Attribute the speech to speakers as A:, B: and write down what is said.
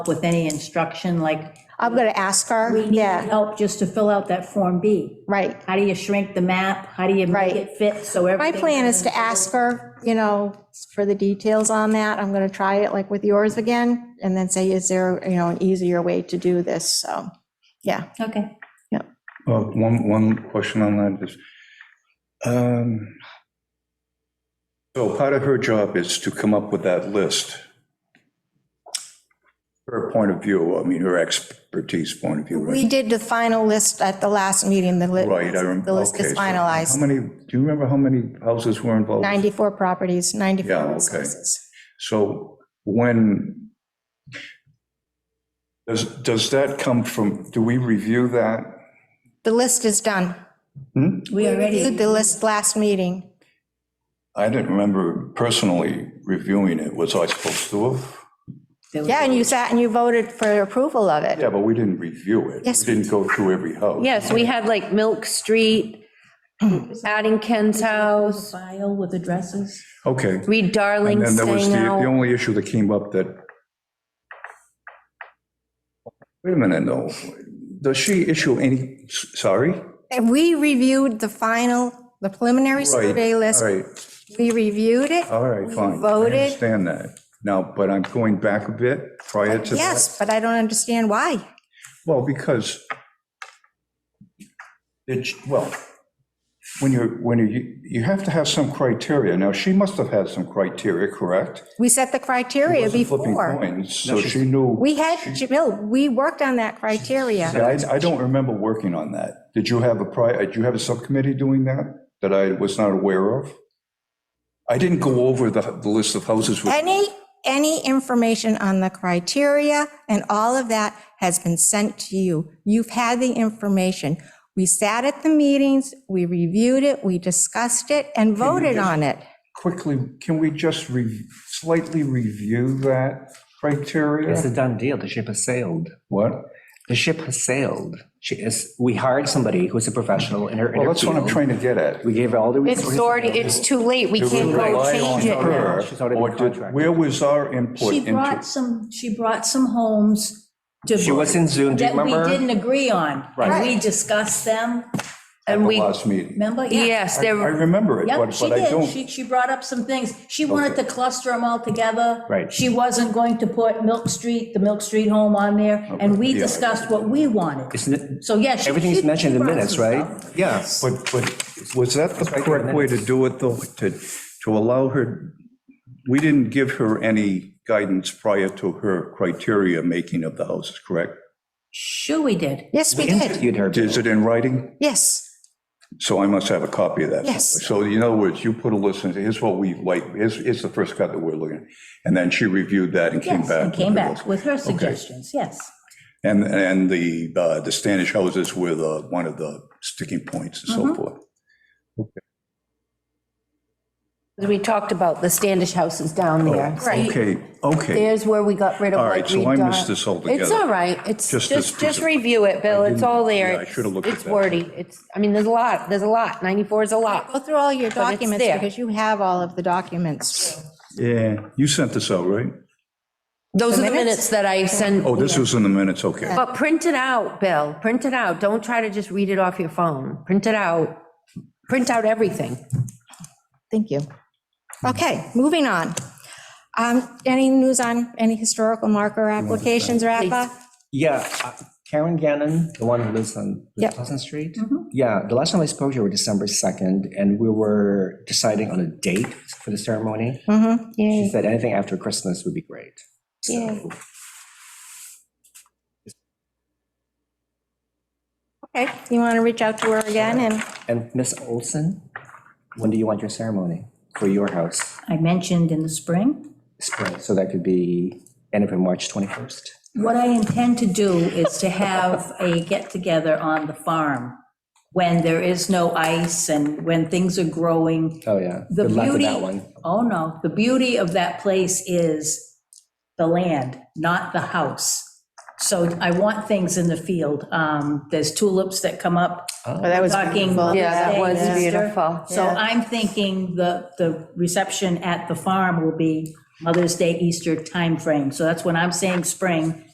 A: with any instruction, like,
B: I'm going to ask her,
A: we need
B: yeah,
A: help just to fill out that Form B?
B: right.
A: How do you shrink the map? How do you make
B: Right.
A: it fit so everything?
B: My plan is to ask her, you know, for the details on that. I'm going to try it like with yours again and then say, is there, you know, an easier way to do this? So, yeah.
A: Okay,
C: Well, one, one question on that is, um, so part of her job is to come up with that list. Her point of view, I mean, her expertise point of view,
B: We
C: right?
B: did the final list at the last meeting, the list,
C: Right, I rem-
B: the list
C: okay,
B: is
C: so How
B: finalized.
C: many, do you remember how many houses were involved?
B: 94 properties, 94
C: Yeah, okay.
B: resources.
C: So when, does, does that come from, do we review that?
B: The list is done.
C: Hmm?
A: we
B: Did
A: already,
B: The list last meeting.
C: I didn't remember personally reviewing it. Was I supposed to have?
B: Yeah, and you sat and you voted for approval of it.
C: Yeah, but we didn't review it.
B: Yes,
C: We didn't go through every house.
D: Yes, we had like Milk Street, Addington's house,
A: file with addresses?
C: Okay.
D: Reed
C: And
D: Darling's
C: then there was
D: staying
C: the, the
D: out.
C: only issue that came up that. Wait a minute, no. Does she issue any, s- sorry?
B: And we reviewed the final, the preliminary survey list.
C: All right,
B: We reviewed it.
C: all right,
B: We
C: fine.
B: voted.
C: I understand that. Now, but I'm going back a bit prior to that.
B: Yes, but I don't understand why.
C: Well, because it's, well, when you're, when you, you have to have some criteria. Now, she must have had some criteria, correct?
B: We set the criteria
C: Wasn't Flipping
B: before.
C: coins, so she knew.
B: We had, Jamil, we worked on that criteria.
C: Yeah, I, I don't remember working on that. Did you have a pri, uh, did you have a subcommittee doing that, that I was not aware of? I didn't go over the, the list of houses with,
B: Any, any information on the criteria and all of that has been sent to you. You've had the information. We sat at the meetings, we reviewed it, we discussed it and voted on it.
C: quickly, can we just re, slightly review that
E: It's a
C: criteria?
E: done deal. The ship has sailed.
C: What?
E: The ship has sailed. She is, we hired somebody who's a professional in her. in
C: Well,
E: her
C: that's what I'm
E: field.
C: trying to get at.
E: We gave her all the
D: It's
E: resources.
D: already, it's too late. We
C: Do we
D: can't go
C: rely
D: change
C: on
D: it.
C: her,
E: She's already
C: or
E: been
C: did-
E: contracted.
C: Where was our input
A: She
C: into?
A: brought some, she brought some homes to.
E: She was in Zoom, do you
A: That we
E: remember?
A: didn't agree on. And we discussed them,
D: And we,
C: The last meeting.
A: remember? Yeah.
D: yes,
C: I
D: there,
C: remember it,
A: Yep,
C: but,
A: she
C: but I
A: did.
C: don't,
A: She, she brought up some things. She wanted to cluster them all together.
E: Right.
A: She wasn't going to put Milk Street, the Milk Street home on there, and we
C: Okay, yeah.
A: discussed what we wanted.
E: Isn't it-
A: So yes.
E: Everything's mentioned in minutes, right?
C: yeah, but, but was that the correct way to do it, though? To, to allow her, we didn't give her any guidance prior to her criteria making of the houses, correct?
A: Sure we did.
B: Yes, we did.
E: Interviewed her.
C: Is it in writing?
B: Yes.
C: So I must have a copy of that.
B: Yes.
C: So in other words, you put a list, and say, here's what we like, here's, here's the first cut that we're looking at. And then she reviewed that and came
A: Yes,
C: back.
A: and came
C: with her
A: back
C: list.
A: with her suggestions, yes.
C: And, and the, uh, the Standish houses were the, one of the sticking points and
A: Mm-hmm.
C: so forth.
D: we talked about the Standish houses down there.
C: Oh, Okay, okay.
D: There's where we got rid of
C: All
D: like
C: right, so
D: Reed
C: I
D: Dar-
C: missed this altogether.
D: It's all right. It's,
C: Just
D: just,
C: this piece
D: just
C: of-
D: review it, Bill. It's all there.
C: yeah, I should've looked at
D: It's
C: that.
D: wordy. It's, I mean, there's a lot, there's a lot. 94 is a lot.
B: Go through all your
D: it's
B: documents
D: there.
B: because you have all of the documents.
C: Yeah, you sent this out, right?
D: Those are the
B: minutes?
D: minutes that I send
C: Oh, this was in the minutes, okay.
D: But print it out, Bill. Print it out. Don't try to just read it off your phone. Print it out. Print out everything.
B: Thank you. Okay, moving on. Um, Any news on any historical marker applications, Rafa?
E: Yeah, uh, Karen Gannon, the one who lives on
B: Yep.
E: Pleasant Street.
A: Mm-hmm.
E: Yeah, the last time I spoke to her was December 2nd, and we were deciding on a date for the ceremony.
A: Mm-hmm.
B: Mhm,
E: She
B: yay.
E: said anything after Christmas would be great. So
B: Okay, you want to reach out to her again and,
E: And Miss Olson, when do you want your ceremony for your house?
A: I mentioned in the spring.
E: Spring, so that could be end of March 21st.
A: What I intend to do is to have a get-together on the farm when there is no ice and when things are growing.
E: Oh, yeah.
A: The
E: Good luck with
A: beauty,
E: that one.
A: oh no, the beauty of that place is the land, not the house. So I want things in the field. Um, There's tulips that come up.
B: oh, that was
A: Talking
B: beautiful.
A: Yeah, that was
B: Yeah.
A: beautiful. So
B: Yeah.
A: I'm thinking the, the reception at the farm will be Mother's Day, Easter timeframe. So that's when I'm saying spring,